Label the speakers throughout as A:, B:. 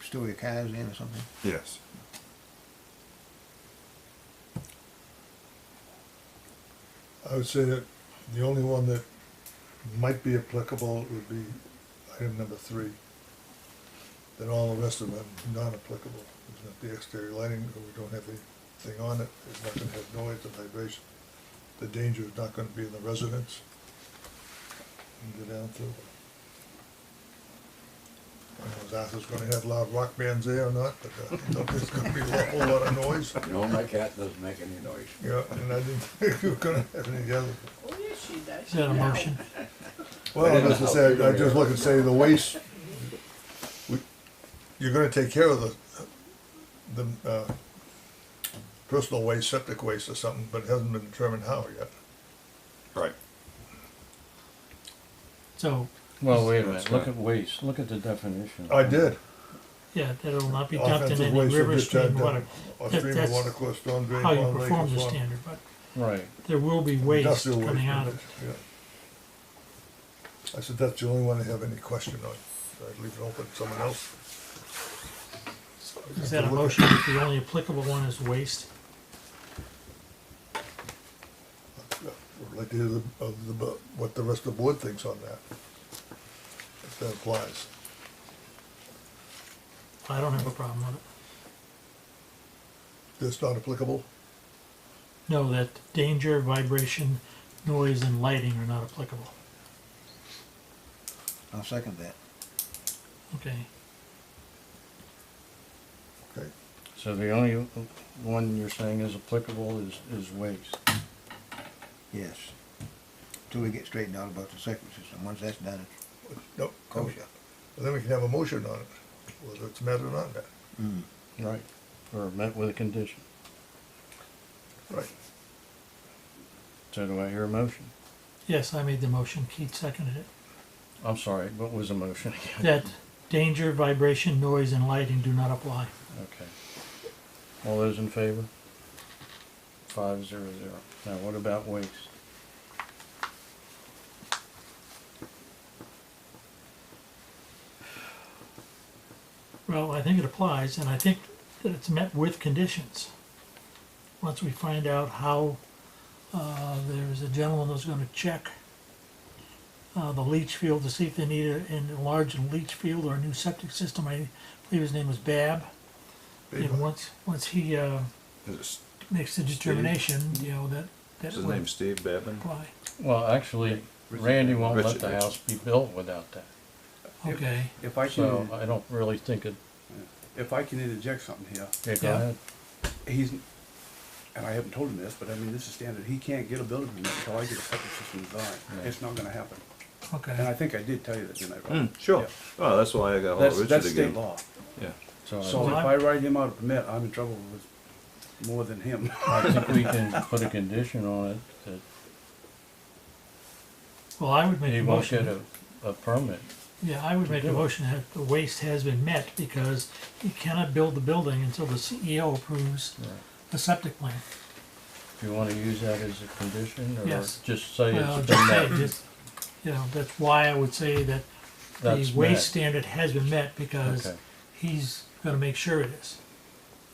A: store your cows in or something?
B: Yes.
C: I would say that the only one that might be applicable would be item number three. Then all the rest of them non-applicable. There's not the exterior lighting, or we don't have anything on it, it's not gonna have noise and vibration. The danger is not gonna be in the residence. And go down through. I don't know if Arthur's gonna have loud rock bands there or not, but uh, I don't think it's gonna be a whole lot of noise.
D: No, my cat doesn't make any noise.
C: Yeah, and I didn't think we were gonna have any other.
E: Oh, yes, she does.
F: Is that a motion?
C: Well,
D: I didn't
C: as I
D: know.
C: said, I just look and say the waste, we- you're gonna take care of the, the, uh, personal waste, septic waste or something, but it hasn't been determined how yet.
B: Right.
F: So,
G: Well, wait a
B: That's
G: minute, look
B: right.
G: at waste, look at the definition.
C: I did.
F: yeah, that it'll not be dumped in
C: Offensive
F: any
C: waste or
F: river,
C: discharge
F: stream, water,
C: Or
F: That-
C: stream of
F: that's
C: water course, storm drain.
F: how you
C: pond, lake,
F: perform
C: or
F: the
C: pond.
F: standard, but
G: Right,
F: there will be waste
C: Industrial waste,
F: coming out of it.
C: yeah. I said, that's the only one I have any question on, I'd leave it open, to someone else.
F: Is that a motion that the only applicable one is waste?
C: I'd like to hear the, of the, bu- what the rest of the board thinks on that. If that applies.
F: I don't have a problem with it.
C: That's not applicable?
F: No, that danger, vibration, noise, and lighting are not applicable.
A: I'll second that.
F: Okay,
C: Okay.
G: so the only one you're saying is applicable is, is waste.
A: Yes. Till we get straightened out about the septic system. Once that's done, it's
C: No, then we-
A: kosher.
C: then we can have a motion on it, whether it's met or not met.
A: Mm.
G: Right. Or met with a condition.
C: Right.
G: So do I hear a motion?
F: yes, I made the motion, Keith seconded it.
G: I'm sorry, what was the motion again?
F: That danger, vibration, noise, and lighting do not apply.
G: Okay. All those in favor? Five zero zero. Now, what about waste?
F: Well, I think it applies, and I think that it's met with conditions. Once we find out how, uh, there's a gentleman that's gonna check uh, the leach field to see if they need a- an enlarged leach field or a new septic system. I believe his name was Bab. And once, once he, uh,
B: Is it S-
F: makes the determination, you know, that, that
B: Is his
F: would
B: name Steve Babin?
F: apply.
G: Well, actually, Randy won't let
B: Richard,
G: the
B: Richard.
G: house be built without that.
F: Okay,
H: If I
G: So uh,
H: can,
G: I don't really think it,
H: if I can interject something here,
G: yeah, go
F: Yeah.
G: ahead.
H: he's, and I haven't told him this, but I mean, this is standard, he can't get a building permit until I get a septic system design.
G: Right.
H: It's not gonna happen. And I
F: okay.
H: think I did tell you that, didn't I? Rob?
B: Mm, sure.
H: Yeah.
B: Oh, that's why I got hold of
H: Hmm, That's,
B: Richard
H: that's
B: again.
H: state law.
B: Yeah.
G: So I-
H: So if I write him out a permit, I'm in trouble with more than him.
G: I think we can put a condition on it that
F: Well, I would make
G: he
F: a
G: won't get
F: motion,
G: a, a permit.
F: yeah, I would make a
G: Do it.
F: motion that the waste has been met because he cannot build the building until the CEO approves
G: Right.
F: the septic plan.
G: Do you wanna use that as a condition, or
F: Yes.
G: just say
F: Well,
G: it's
F: just say,
G: been met?
F: just, you know, that's why I would say that the
G: That's met.
F: waste standard has been met because
G: Okay.
F: he's gonna make sure it is.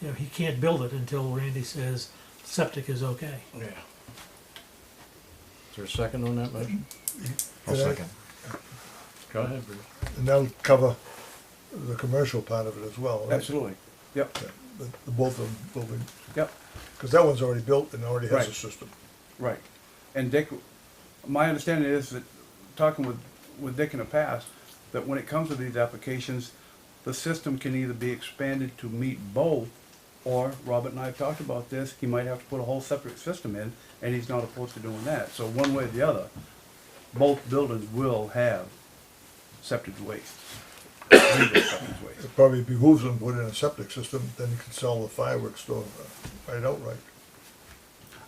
F: You know, he can't build it until Randy says septic is okay.
G: Yeah. Is there a second on that motion?
C: I'll second.
G: Go ahead, Bruce.
C: And that'll cover the commercial part of it as well, right?
H: Absolutely. Yep,
C: Yeah, The, the both of them will be,
H: yep.
C: because that one's already built and already has a
H: Right.
C: system.
H: Right. And Dick, my understanding is that, talking with, with Dick in the past, that when it comes to these applications, the system can either be expanded to meet both, or Robert and I have talked about this, he might have to put a whole separate system in, and he's not opposed to doing that. So one way or the other, both buildings will have septic waste. Legal septic waste.
C: It probably behooves them to put in a septic system, then you can sell the fireworks store uh, right outright.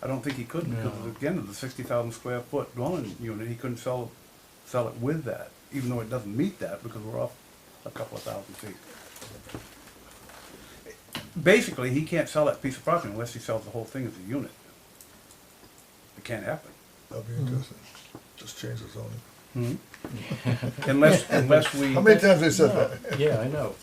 H: I don't think he could, because
G: No.
H: again, of the sixty thousand square foot dwelling unit, he couldn't sell, sell it with that, even though it doesn't meet that, because we're off a couple of thousand feet. Basically, he can't sell that piece of property unless he sells the whole thing as a unit. It can't happen.
C: That'd be interesting. Just change the zoning.
H: Unless, unless we,
C: How many times they said that?
G: Yeah, I know.